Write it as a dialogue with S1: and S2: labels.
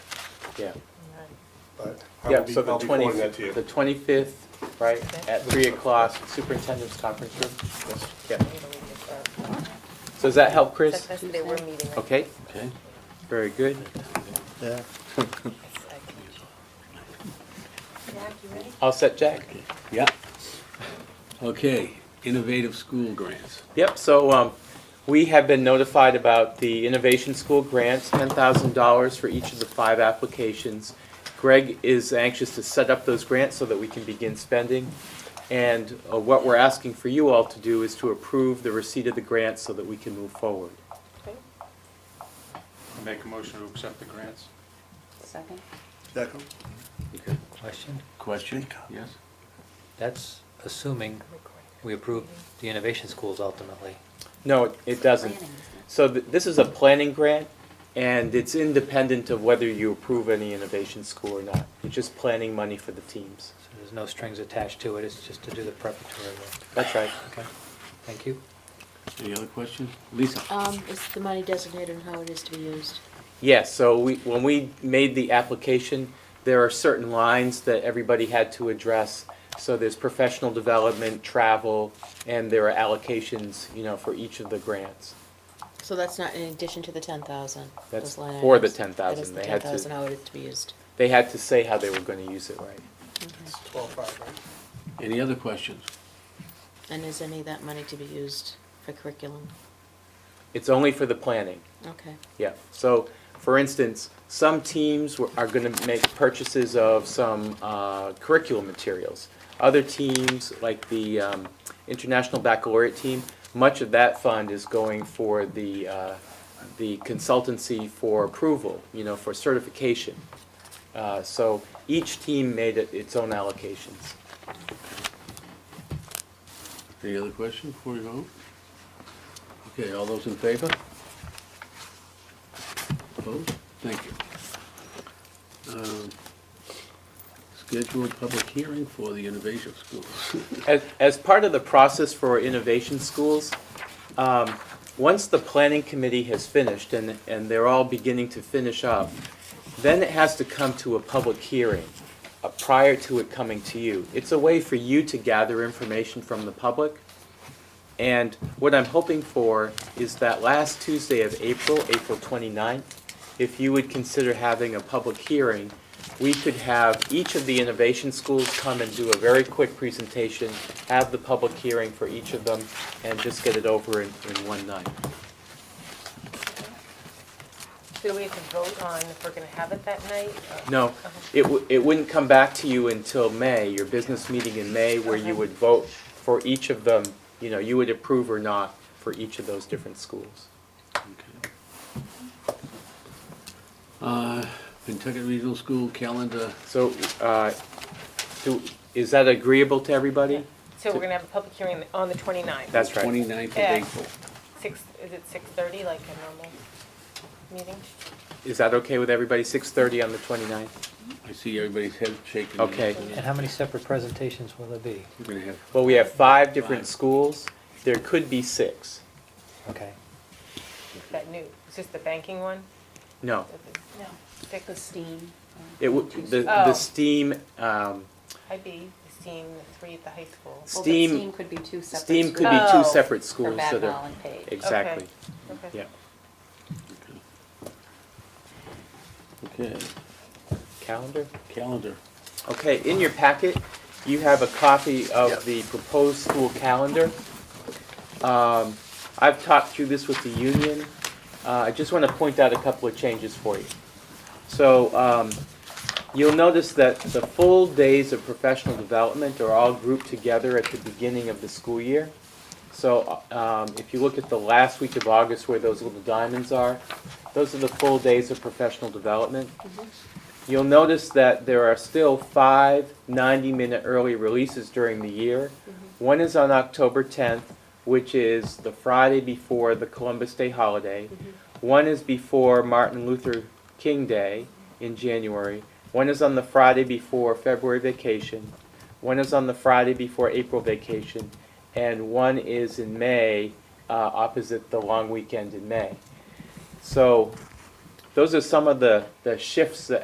S1: yeah.
S2: but I
S1: Yeah,
S2: will be,
S1: so the
S2: I'll be forwarding
S1: 20th
S2: that to you.
S1: The twenty-fifth, right,
S3: Okay.
S1: at three o'clock, superintendent's conference room.
S2: Yes.
S1: Yeah. So does that help, Chris?
S3: That's the day we're meeting. right?
S1: Okay,
S4: Okay.
S1: very good.
S4: Yeah.
S3: Jack, you ready?
S1: All set, Jack?
S4: Yeah. Okay, innovative school grants.
S1: Yep, so um, we have been notified about the Innovation School grants, $10,000 for each of the five applications. Greg is anxious to set up those grants so that we can begin spending. And uh, what we're asking for you all to do is to approve the receipt of the grants so that we can move forward.
S3: Okay.
S5: Make a motion to accept the grants.
S3: Second.
S2: Second.
S6: Question?
S4: Question? Yes.
S6: That's assuming we approve the innovation schools ultimately.
S1: No, it- it doesn't. So th- this is a planning grant, and it's independent of whether you approve any innovation school or not. It's just planning money for the teams.
S6: So there's no strings attached to it, it's just to do the preparatory work.
S1: That's right.
S6: Okay, thank you.
S4: Any other questions? Lisa?
S7: Um, is the money designated and how it is to be used?
S1: Yes, so we, when we made the application, there are certain lines that everybody had to address. So there's professional development, travel, and there are allocations, you know, for each of the grants.
S7: So that's not in addition to the ten thousand?
S1: That's for the 10,000.
S7: That is the
S1: They had
S7: ten
S1: to-
S7: thousand, how it is to be used?
S1: They had to say how they were gonna use it, right?
S2: It's twelve-five, right?
S4: Any other questions?
S7: And is any of that money to be used for curriculum?
S1: It's only for the planning,
S7: Okay,
S1: yeah. So, for instance, some teams were- are gonna make purchases of some uh, curriculum materials. Other teams, like the um, International Baccalaureate team, much of that fund is going for the, uh, the consultancy for approval, you know, for certification. Uh, So each team made it its own allocations.
S4: Any other questions before you vote? Okay, all those in favor? Opposed? Thank you. Um, Scheduled public hearing for the innovative schools.
S1: As, as part of the process for innovation schools, um, once the planning committee has finished and, and they're all beginning to finish up, then it has to come to a public hearing, uh, prior to it coming to you. It's a way for you to gather information from the public. And what I'm hoping for is that last Tuesday of April, April 29th, if you would consider having a public hearing, we could have each of the innovation schools come and do a very quick presentation, have the public hearing for each of them, and just get it over in, in one night.
S3: Do we have to vote on if we're gonna have it that night? or-
S1: No, it, wou- it wouldn't come back to you until May, your business meeting in May, where you would vote for each of them, you know, you would approve or not for each of those different schools.
S4: Okay. Uh, Pentucket Regional School calendar,
S1: So, uh, do, is that agreeable to everybody?
S3: So we're gonna have a public hearing on the 29th?
S1: That's right.
S4: 29th of
S3: Yeah.
S4: April.
S3: Six, is it 6:30, like a normal meeting?
S1: Is that okay with everybody, six-thirty on the 29th?
S4: I see everybody's head shaking.
S1: Okay.
S6: And how many separate presentations will there be?
S4: We're gonna have,
S1: Well, we have five different
S4: Five.
S1: schools, there could be six.
S6: Okay.
S3: That new, is this the banking one?
S1: No,
S3: No.
S7: the steam.
S1: it would, the,
S3: Oh.
S1: the STEAM, um,
S3: IB, STEAM, the three at the high school.
S1: STEAM,
S7: could be two
S1: STEAM could be two
S3: Oh.
S1: separate schools that are.
S7: and Page.
S1: Exactly,
S3: Okay.
S1: yeah,
S4: okay,
S1: calendar.
S4: calendar.
S1: Okay, in your packet, you have a copy
S2: Yep.
S1: of the proposed school calendar. Um, I've talked through this with the union. Uh, I just want to point out a couple of changes for you. So um, you'll notice that the full days of professional development are all grouped together at the beginning of the school year. So um, if you look at the last week of August where those little diamonds are, those are the full days of professional development. You'll notice that there are still five 90-minute early releases during the year. One is on October 10th, which is the Friday before the Columbus Day holiday. One is before Martin Luther King Day in January. One is on the Friday before February vacation. One is on the Friday before April vacation. And one is in May, uh, opposite the long weekend in May. So those are some of the, the shifts that